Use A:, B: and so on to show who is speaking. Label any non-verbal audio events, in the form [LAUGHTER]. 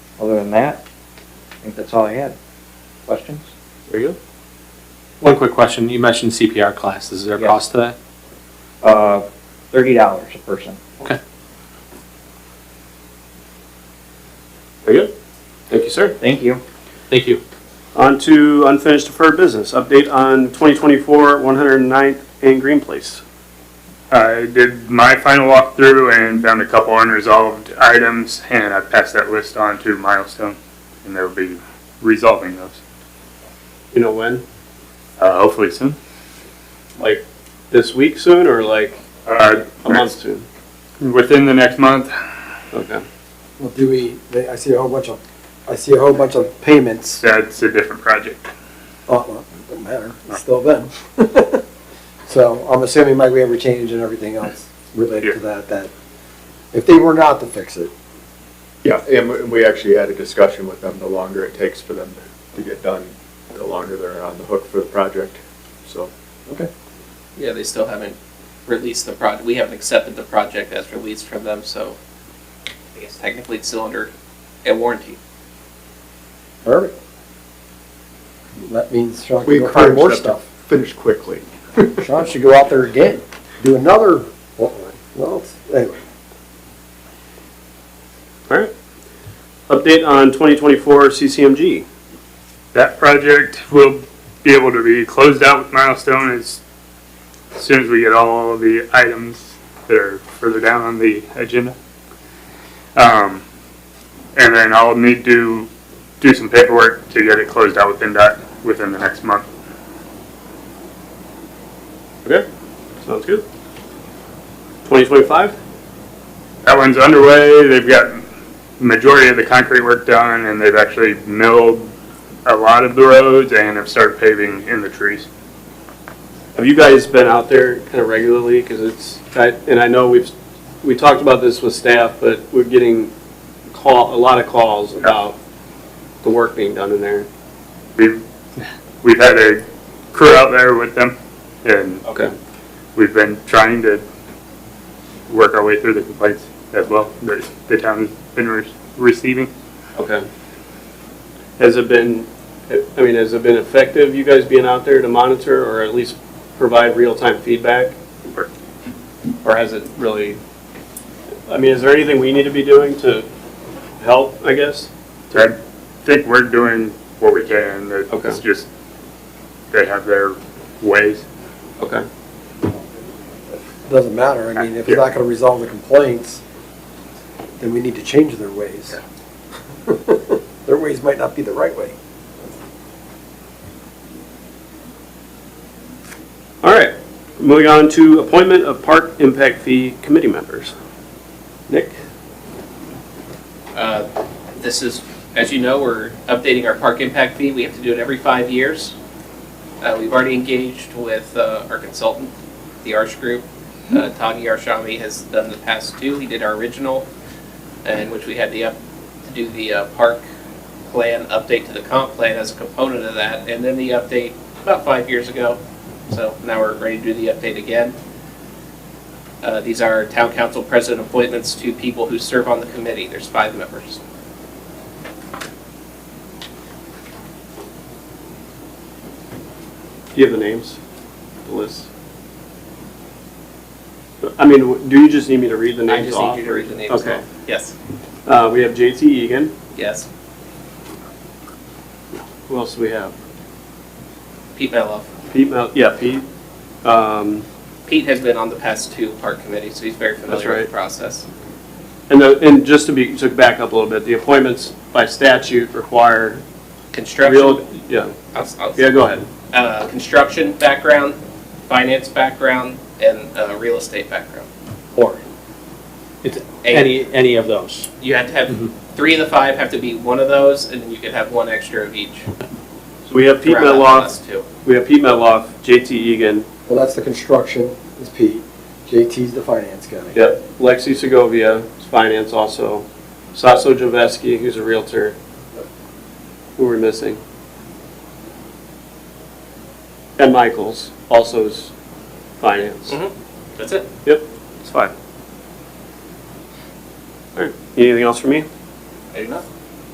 A: Other than that, I think that's all I had. Questions?
B: Very good.
C: One quick question. You mentioned CPR classes. Is there a
A: Yeah.
C: cost to that?
A: Uh, thirty dollars a person.
C: Okay.
B: Very good. Thank you, sir.
A: Thank you.
C: Thank you.
B: On to unfinished deferred business. Update on 2024 109th and Green Place.
D: Uh, I did my final walkthrough and found a couple unresolved items, and I passed that list on to Milestone, and they'll be resolving those,
B: You know when?
D: uh, hopefully soon.
B: Like this week soon or like
D: Uh,
B: a month soon?
D: Within the next month,
B: Okay.
E: Well, do we, they- I see a whole bunch of, I see a whole bunch of payments.
D: that's a different project.
E: Oh, well, doesn't matter, it's still them. [LAUGHS] So I'm assuming, Mike, we have a change and everything else related to that, that if they were not to fix it,
F: Yeah, and we- we actually had a discussion with them, the longer it takes for them to get done, the longer they're on the hook for the project, so. Okay.
G: Yeah, they still haven't released the project, we haven't accepted the project as released from them, so I guess technically it's still under a warranty.
E: perfect. That means Sean
F: We
E: can go find more
F: encourage them
E: stuff.
F: to finish quickly.
E: Sean should go out there again, do another, well, well, anyway.
B: All right. Update on 2024 CCMG.
D: That project will be able to be closed out with Milestone as soon as we get all the items that are further down on the agenda. Um, and then I'll need to do some paperwork to get it closed out with NDOT within the next month.
B: Okay. Sounds good. 2025?
D: That one's underway. They've got majority of the concrete work done, and they've actually milled a lot of the roads and have started paving in the trees.
B: Have you guys been out there kind of regularly? Because it's, I- and I know we've, we talked about this with staff, but we're getting call, a lot of calls about the work being done in there.
D: We've we've had a crew out there with them, and
B: Okay.
D: we've been trying to work our way through the complaints as well that the town has been re- receiving.
B: Okay. Has it been, I mean, has it been effective, you guys being out there to monitor or at least provide real-time feedback?
D: Or-
B: Or has it really, I mean, is there anything we need to be doing to help, I guess?
D: I think we're doing what we can. It's
B: Okay.
D: just they have their ways.
B: Okay.
E: Doesn't matter, I mean, if it's not gonna resolve the complaints, then we need to change their ways. [LAUGHS] Their ways might not be the right way.
B: All right, moving on to appointment of park impact fee committee members. Nick?
G: Uh, This is, as you know, we're updating our park impact fee. We have to do it every five years. Uh, We've already engaged with uh, our consultant, the Arch Group. Uh, Tagi Arshami has done the past two. He did our original, in which we had the, up to do the uh, park plan update to the comp plan as a component of that, and then the update about five years ago. So now we're ready to do the update again. Uh, These are town council president appointments to people who serve on the committee. There's five members.
B: Do you have the names, the list? I mean, w- do you just need me to read the
G: I
B: names
G: just
B: off?
G: need you to read the names.
B: Okay.
G: off. Yes,
B: Uh, we have JT Egan.
G: yes.
B: Who else do we have?
G: Pete Mello.
B: Pete, Mel- yeah, Pete. Um,
G: Pete has been on the past two park committees, so he's very
B: That's
G: familiar
B: right.
G: with the process.
B: and the, and just to be, to back up a little bit, the appointments by statute require
G: Construction,
B: real, yeah,
G: I'll- I'll-
B: yeah, go ahead.
G: uh, construction background, finance background, and uh, real estate background.
C: Or it's
G: Eight.
C: any any of those.
G: You have to
C: Mhm.
B: Mm-hmm.
G: have, three of the five have to be one of those, and then you could have one extra of each.
B: So we have Pete
G: throughout the
B: Metloff,
G: last two.
B: we have Pete Metloff, JT Egan,
E: Well, that's the construction, is Pete. JT's the finance guy.
B: Yep, Lexi Segovia, is finance also, Sasso Javeski, who's a realtor. Who we're missing? And Michaels, also is finance.
G: Mhm. That's it.
B: Yep, it's five. All right, anything else for me?
G: I do not.